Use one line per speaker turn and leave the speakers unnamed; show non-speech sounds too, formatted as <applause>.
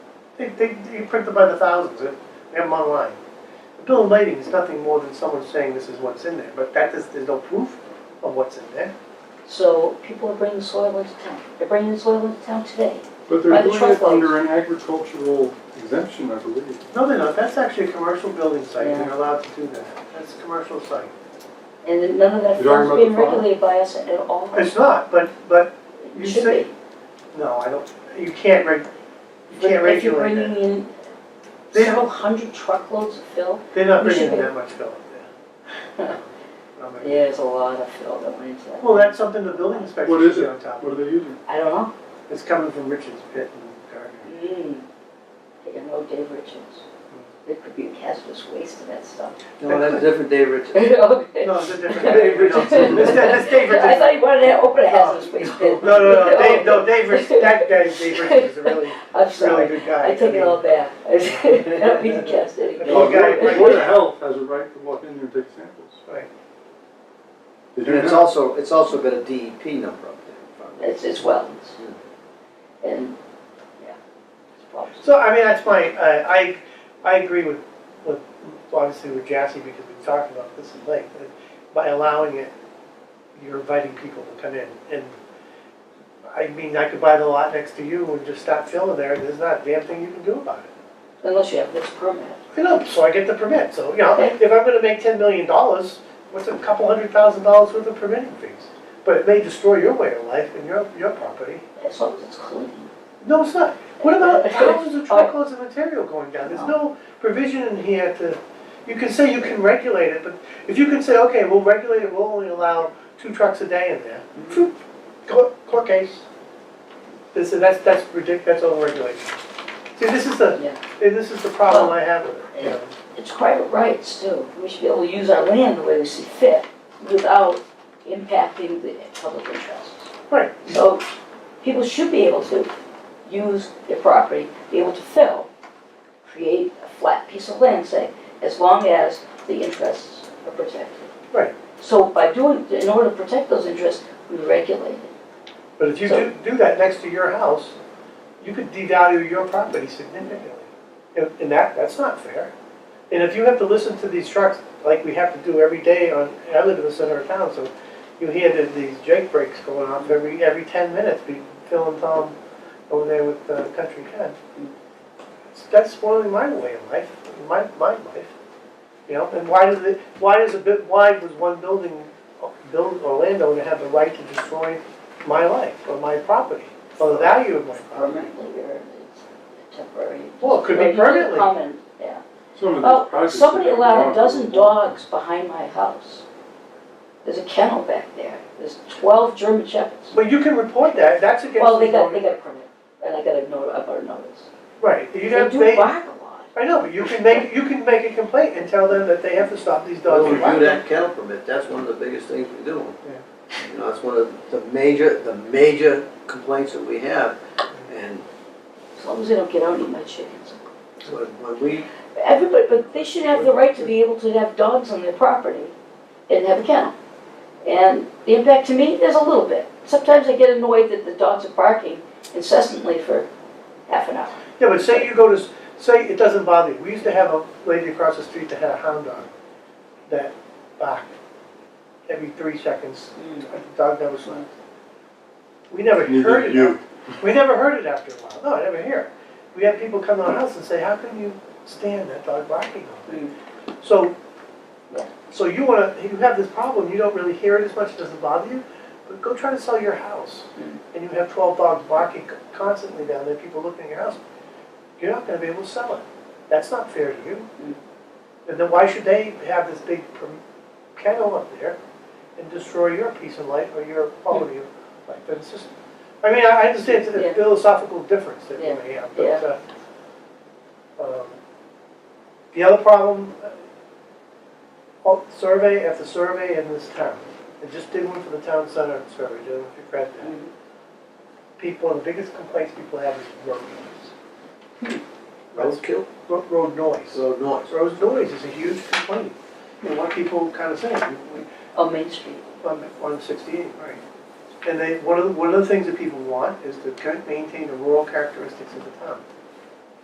They, they, you print them by the thousands, they they have them online. The bill of lading is nothing more than someone saying this is what's in there, but that is, there's no proof of what's in there.
So people are bringing soil into town. They're bringing soil into town today.
But
By
they're
the
doing it
truckload.
under an agricultural exemption, I believe.
No, they're not, that's actually a commercial building site,
Yeah.
they're allowed to do that, that's a commercial site.
And none of that
You're
farm's
talking about
being
the farm?
regulated by us at all.
It's not, but, but you
It should
say,
be.
no, I don't, you can't reg, you
But
can't
if you're
regulate that.
bringing in
They-
several hundred truckloads of fill,
They're not
you
bringing
should-
that much fill up there.
<laughs>
No, maybe.
there's a lot of fill that went into that.
Well, that's something the building inspector
What is
should
it?
get on top
What
of.
are they using?
I don't know.
It's coming from Richard's pit and Gardner.
<laughs> Mm. Take a note, Dave Richards. There could be a hazardous waste to that stuff. <laughs>
No, that's a different Dave Richards.
Okay.
No, it's a different <laughs> Dave
<laughs>
Richards. It's- That's Dave
I
Richards.
thought you wanted to open a hazardous waste bin.
No, no,
<laughs>
no, Dave, no, Dave Richards, that guy, Dave Richards is a really,
I'm
really
<laughs> sorry.
good guy.
I take it all back. <laughs> I don't mean to cast any.
The poor guy-
The Board of Health has a right to walk in there and take samples.
Right.
They do
And it's
now.
also, it's also got a DEP number up there.
It's, it's wetlands. And, yeah, it's problems.
So, I mean, that's my, I, I, I agree with, with, obviously with Jassy, because we've talked about this at length. but By allowing it, you're inviting people to come in, and, I mean, I could buy the lot next to you and just stop filling there, and there's not a damn thing you can do about it.
Unless you have this permit.
You know, so I get the permit, so, you know,
Okay.
if I'm gonna make ten million dollars, what's a couple hundred thousand dollars worth of permitting fees? But it may destroy your way of life and your, your property.
As long as it's clean.
No, it's not. What about thousands of truckloads of material going down? There's no provision in here to, you can say you can regulate it, but if you can say, okay, we'll regulate it, we'll only allow two trucks a day in there. phew, Court, court case. This, is- that's, that's ridiculous, that's over-regulation. See, this is the,
Yeah.
this is the problem I have with it. you know.
It's private rights too. We should be able to use our land the way we see fit without impacting the public interests.
Right.
So people should be able to use their property, be able to fill, create a flat piece of land, say, as long as the interests are protected.
Right.
So by doing, in order to protect those interests, we regulate it.
But if you
So-
do, do that next to your house, you could devalue your property significantly. And, and that, that's not fair. And if you have to listen to these trucks, like we have to do every day on, I live in the center of town, so you hear the- these Jake breaks going off every, every ten minutes, be Phil and Tom over there with uh, Country Ken. That's spoiling my way of life, my, my life. You know, and why does it, why does a bit, why was one building, build, or landowner have the right to destroy my life or my property or the value of my property.
Permanently or it's temporary.
Well, it could
Or
be
you can
permanently.
come and- yeah.
Some of these
Oh,
projects.
somebody
that they
allowed a
want-
dozen dogs behind my house. There's a kennel back there, there's twelve German shepherds.
But you can report that, that's against.
Well, they
the
got, they
zoning-
got a permit, and I got a note, I got a notice.
Right,
They
you have,
do
they,
bark a lot.
I know, but you can make, you can make a complaint and tell them that they have to stop these dogs. from
Well, we do
barking.
that kennel permit, that's one of the biggest things we do.
Yeah.
You know, that's one of the major, the major complaints that we have. And
As long as they don't get out and eat my chickens.
when when we,
Everybody, but they should have the right to be able to have dogs on their property and have a kennel. And the impact to me is a little bit. Sometimes I get annoyed that the dogs are barking incessantly for half an hour.
Yeah, but say you go to, s- say it doesn't bother you, we used to have a lady across the street that had a hound dog that barked every three seconds, the dog never slept. We never heard
Neither
it.
do you.
We never heard it after a while. No, I never hear it. We have people come to our house and say, how can you stand that dog barking all day? So,
Mm. Yeah.
so you wanna, you have this problem, you don't really hear it as much, it doesn't bother you, but go try to sell your house.
Mm.
And you have twelve dogs barking constantly down there, people looking at your house, you're not gonna be able to sell it. That's not fair to you.
Mm.
And then why should they have this big per- kennel up there and destroy your peace of life or your quality of life? But it's just, I mean, I I understand the
Yeah.
philosophical difference that we
Yeah.
may have, but, uh, um, the other problem, uh, oh, survey after survey in this town, I just did one for the town center survey, I don't know if you've read that.
Mm.
People, the biggest complaints people have is road noise.
Hmm.
Road,
roadkill,
road- road noise.
so noise.
Road noise is a huge complaint, and what people kind of say, we- we-
On Main Street.
on, on sixty-eight, right. And they, one of, the- one of the things that people want is to kind of maintain the rural characteristics of the town.